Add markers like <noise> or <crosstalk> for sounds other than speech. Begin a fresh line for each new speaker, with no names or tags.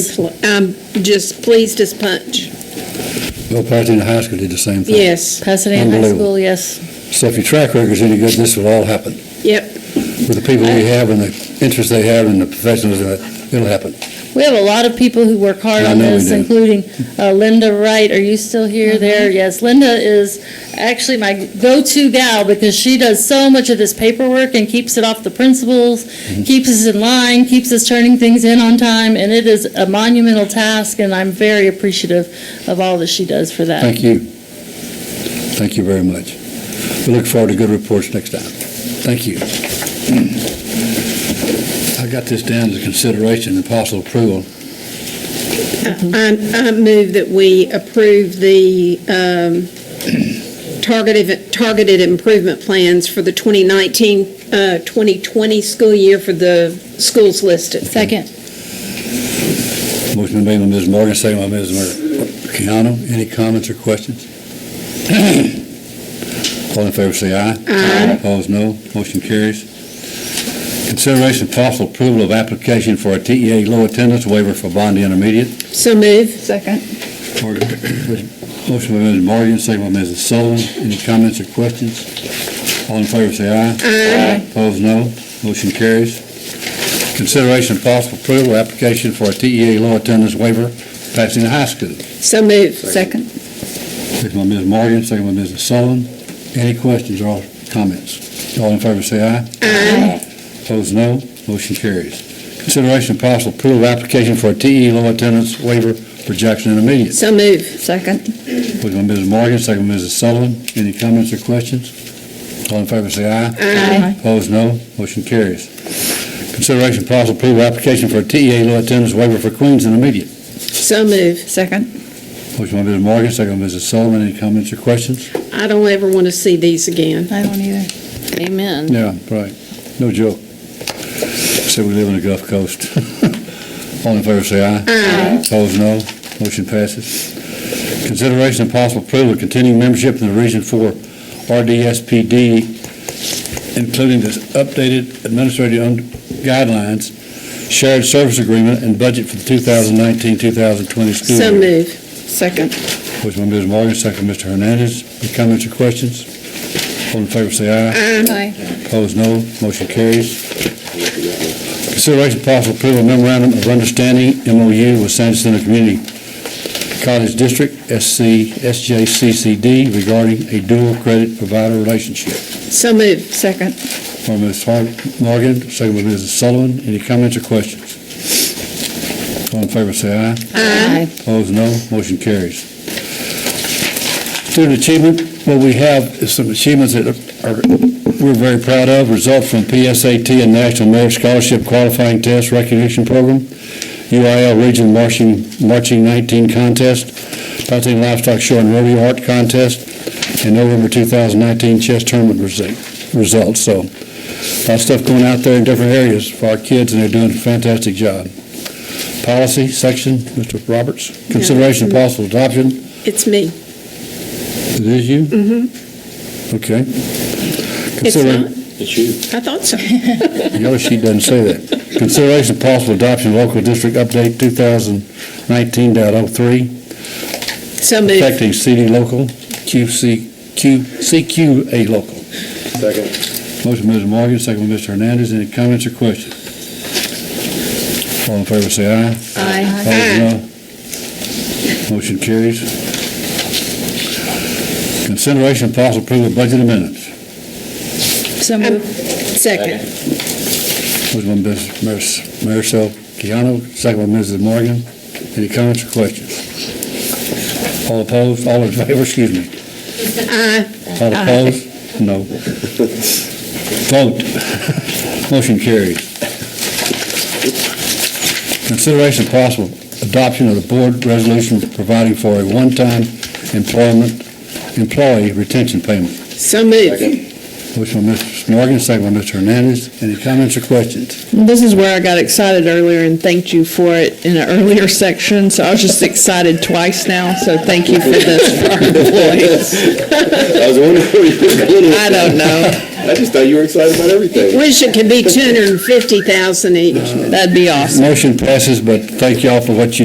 I'm Um, just pleased as punch.
Bill Pasadena High School did the same thing.
Yes,
Pasadena High
Unbelievable.
School, yes.
So if your track record's any good, this will all happen.
yep.
With the people we have and the interest they have and the professionals, in it, it'll happen.
We have a lot of people who work hard
I
on
know we
this,
do.
including uh, Linda Wright. Are you still here there? Yes, Linda is actually my go-to gal because she does so much of this paperwork and keeps it off the principals,
Mm-hmm.
keeps us in line, keeps us turning things in on time, and it is a monumental task, and I'm very appreciative of all that she does for that.
Thank you. Thank you very much. We look forward to good reports next time. Thank you. I got this down to consideration and possible approval.
Mm-hmm.
I I move that we approve the um, targeted targeted improvement plans for the 2019-2020 school year for the schools listed.
Second.
Motion made by Ms. Morgan, second by Ms. Mer- Keano. Any comments or questions? <clears throat> All in favor, say aye. Aye. Opposed, no. Motion carries. Consideration of possible approval of application for a TEA low attendance waiver for Bondi Intermediate.
So move.
Second.
Morgan. Motion by Mrs. Morgan, second by Mrs. Sullivan. Any comments or questions? All in favor, say aye. Aye. Opposed, no. Motion carries. Consideration of possible approval, of application for a TEA low attendance waiver, Pasadena High School.
So move.
Second.
Motion by Mrs. Morgan, second by Mrs. Sullivan. Any questions or comments? All in favor, say aye. Aye. Opposed, no. Motion carries. Consideration of possible approval, of application for a TEA low attendance waiver for Jackson Intermediate.
So move.
Second.
Motion by Mrs. Morgan, second by Mrs. Sullivan. Any comments or questions? All in favor, say aye.
Aye.
Opposed, no. Motion carries. Consideration possible approval application for a TEA low attendance waiver for Queens and immediate.
So move.
Second.
Motion by Mrs. Morgan, second by Mrs. Sullivan. Any comments or questions?
I don't ever want to see these again.
I don't either.
Amen.
Yeah, right. No joke. Say we live on the Gulf Coast. <laughs> All in favor, say aye. Aye. Opposed, no. Motion passes. Consideration and possible approval of continuing membership in the Region Four RDSPD, including the updated administrative un- guidelines, shared service agreement, and budget for the 2019-2020 school year.
So move.
Second.
Motion by Ms. Morgan, second by Mr. Hernandez. Any comments or questions? All in favor, say aye.
Aye.
Opposed, no. Motion carries. Consideration of possible approval of memorandum of understanding, MOU, with San Jacinto Community College District, SC, SJCCD, regarding a dual credit provider relationship.
So move.
Second.
For Ms. Har- Morgan, second by Mrs. Sullivan. Any comments or questions? All in favor, say aye.
Aye.
Opposed, no. Motion carries. Student achievement, what we have is some achievements that are, we're very proud of, result from PSAT and National Merit Scholarship Qualifying Test Recognition Program, UIL Region Marching, Marching 19 Contest, Pasadena Livestock Show and Rodeo Art Contest, and November 2019 chess tournament resi- results. So, a lot of stuff going out there in different areas for our kids, and they're doing a fantastic job. Policy section, Mr. Roberts, consideration of possible adoption
It's me.
it is you? Mm-hmm. Okay.
It's
Consider-
not. I thought so.
The other sheet doesn't say that. Consideration of possible adoption of local district update 2019.03
So move.
affecting CD local, QC, Q, CQA local. Second. Motion by Mrs. Morgan, second by Mr. Hernandez. Any comments or questions? All in favor, say aye.
Aye.
Opposed, no. Motion carries. Consideration of possible approval of budget amendments.
So
Um,
moved.
Second.
Motion by Ms. Maris- Marisol Keano, second by Mrs. Morgan. Any comments or questions? All opposed, all in favor, excuse me.
Aye.
All opposed? No. Vote. Motion carries. Consideration of possible adoption of the board resolution providing for a one-time employment, employee retention payment.
So move.
Motion by Mrs. Morgan, second by Mr. Hernandez. Any comments or questions?
This is where I got excited earlier and thanked you for it in an earlier <laughs> section, so I was just excited twice now, so thank you for this for our employees.
I was wondering where you were going with
I don't know.
I just thought you were excited about everything.
<laughs> Wish it could be 250,000 each.
That'd be awesome.
Motion passes, but thank y'all for what you